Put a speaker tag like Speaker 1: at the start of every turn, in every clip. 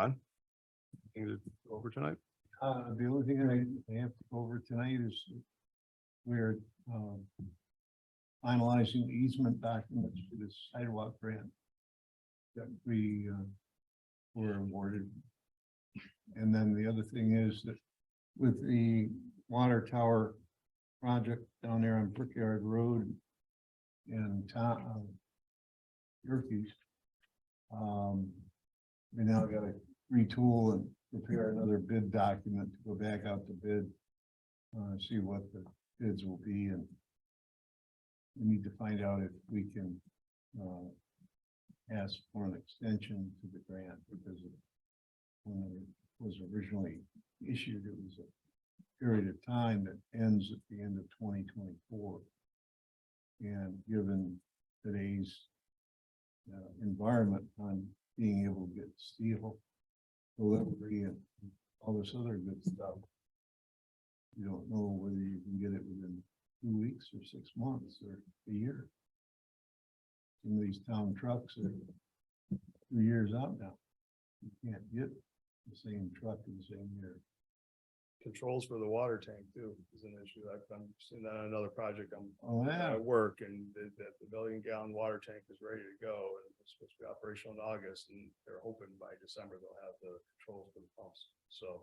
Speaker 1: Fine. Anything to go over tonight?
Speaker 2: Uh, the only thing that I- I have to go over tonight is we're, um, finalizing the easement documents for this sidewalk grant that we, uh, were awarded. And then the other thing is that with the water tower project down there on Brickyard Road in town, um, Yerkes, um, we now gotta retool and prepare another bid document to go back out to bid. Uh, see what the bids will be and we need to find out if we can, uh, ask for an extension to the grant because of when it was originally issued, it was a period of time that ends at the end of twenty twenty-four. And given today's uh, environment on being able to get steel delivery and all this other good stuff. You don't know whether you can get it within two weeks or six months or a year. Some of these town trucks are two years out now. You can't get the same truck in the same year.
Speaker 1: Controls for the water tank too is an issue. I've been seeing that on another project I'm
Speaker 2: Oh, yeah,
Speaker 1: at work and the, the the million gallon water tank is ready to go and it's supposed to be operational in August and they're hoping by December they'll have the controls for the pumps. So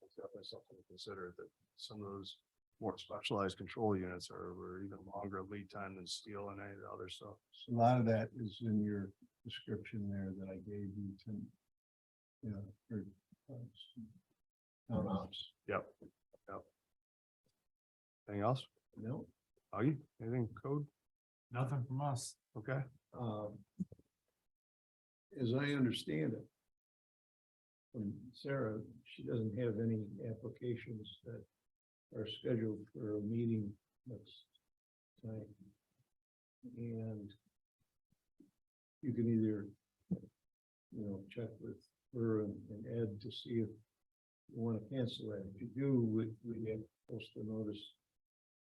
Speaker 1: it's definitely something to consider that some of those more specialized control units are, are even longer lead time than steel and any of the other stuff.
Speaker 2: a lot of that is in your description there that I gave you to, you know, for uh, town ops.
Speaker 1: Yep, yep. Anything else?
Speaker 2: No,
Speaker 1: Augie, anything code?
Speaker 3: Nothing from us.
Speaker 1: Okay.
Speaker 2: um, as I understand it, from Sarah, she doesn't have any applications that are scheduled for a meeting next time. And you can either, you know, check with her and and Ed to see if you want to cancel that. If you do, we, we have post a notice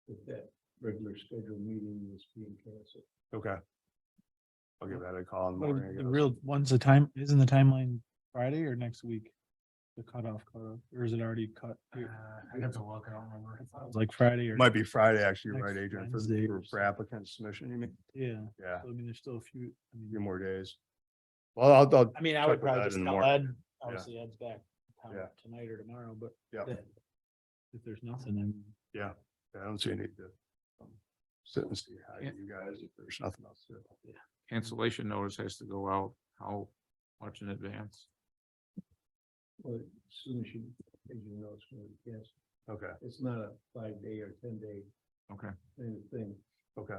Speaker 2: that that regular scheduled meeting is being canceled.
Speaker 1: Okay. I'll give that a call in the morning. I
Speaker 3: Oh, The
Speaker 1: guess.
Speaker 3: real, when's the time, isn't the timeline Friday or next week? The cutoff, cutoff, or is it already cut? I have to look, I don't remember. Like Friday or,
Speaker 1: Might be Friday, actually,
Speaker 3: Next
Speaker 1: right, Adrian, for,
Speaker 3: Wednesday
Speaker 1: for-
Speaker 3: or
Speaker 1: for applicant submission, you mean?
Speaker 3: yeah,
Speaker 1: Yeah,
Speaker 3: So, I mean, there's still a few. I
Speaker 1: a few
Speaker 3: mean-
Speaker 1: more days. Well, I'll, I'll,
Speaker 3: I mean, I
Speaker 1: Check
Speaker 3: would
Speaker 1: with
Speaker 3: probably
Speaker 1: Ed
Speaker 3: just
Speaker 1: in the
Speaker 3: tell
Speaker 1: morning.
Speaker 3: Ed, obviously Ed's back town
Speaker 1: Yeah.
Speaker 3: tonight or tomorrow, but
Speaker 1: Yeah.
Speaker 3: that- if there's nothing, then
Speaker 1: I don't see any to um, sit and see how
Speaker 4: Yeah.
Speaker 1: you guys, if there's nothing else to. do.
Speaker 4: cancellation notice has to go out, how much in advance?
Speaker 2: Well, as soon as you, as you know, it's gonna be canceled.
Speaker 1: Okay,
Speaker 2: It's not a five day or ten day.
Speaker 4: Okay.
Speaker 2: Kind of thing.
Speaker 1: okay.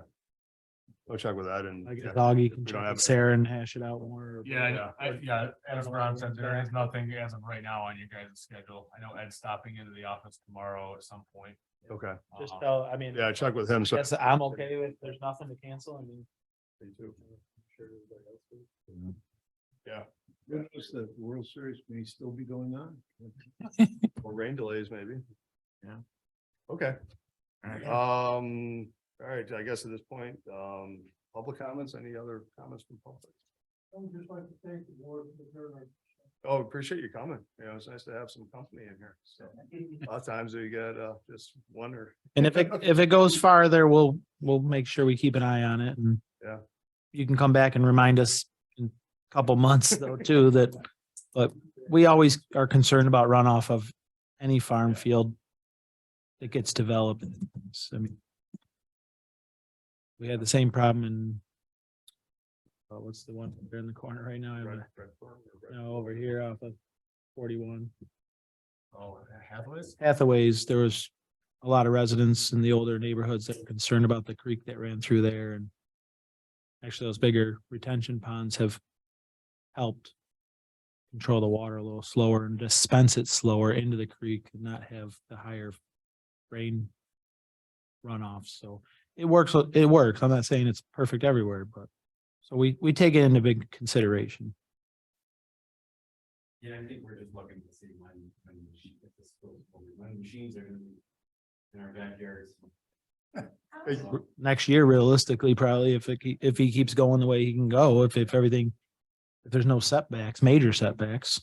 Speaker 1: I'll check with that and.
Speaker 3: I guess
Speaker 1: yeah,
Speaker 3: Augie
Speaker 1: if
Speaker 3: can
Speaker 1: we
Speaker 3: check
Speaker 1: don't have
Speaker 3: with
Speaker 1: it-
Speaker 3: Sarah and hash it out more.
Speaker 5: Yeah, I know.
Speaker 1: Yeah.
Speaker 5: I, yeah, as Ron said, there is Uh, nothing as of right now on your guys' schedule. I know Ed's stopping into the office tomorrow at some point.
Speaker 1: Okay,
Speaker 3: Just
Speaker 5: Um,
Speaker 3: tell, I mean,
Speaker 1: yeah, check with him. So
Speaker 3: yes, I'm okay with, there's nothing to cancel, I mean.
Speaker 2: Who knows, the World Series may still be going on.
Speaker 1: Or rain delays maybe.
Speaker 4: Yeah.
Speaker 1: Okay,
Speaker 4: Alright.
Speaker 1: um, all right, I guess at this point, um, public comments, any other comments from public?
Speaker 2: I would just like to thank the board for their.
Speaker 1: Oh, appreciate you coming. You know, it's nice to have some company in here. So a lot of times we get, uh, just one or
Speaker 3: And if it, if it goes farther, we'll, we'll make sure we keep an eye on it and.
Speaker 1: Yeah.
Speaker 3: You can come back and remind us in a couple months though too that, but we always are concerned about runoff of any farm field. That gets developed, It's- I mean. We had the same problem in. uh, what's the one there in the corner right now? I have
Speaker 1: red,
Speaker 3: a-
Speaker 1: red farm or red.
Speaker 3: No, over here off of forty-one.
Speaker 5: Oh, Hathaway's?
Speaker 3: Hathaways, there was a lot of residents in the older neighborhoods that were concerned about the creek that ran through there and actually those bigger retention ponds have helped control the water a little slower and dispense it slower into the creek and not have the higher rain runoff. So it works, it works. I'm not saying it's perfect everywhere, but so we, we take it into big consideration.
Speaker 6: Yeah, I think we're just looking to see when, when, the mach- if this goes forward, when machines are gonna be in our backyards.
Speaker 1: Hey,
Speaker 6: Um,
Speaker 3: next year realistically, probably if it, ke- if he keeps going the way he can go, if, if everything, if there's no setbacks, major setbacks,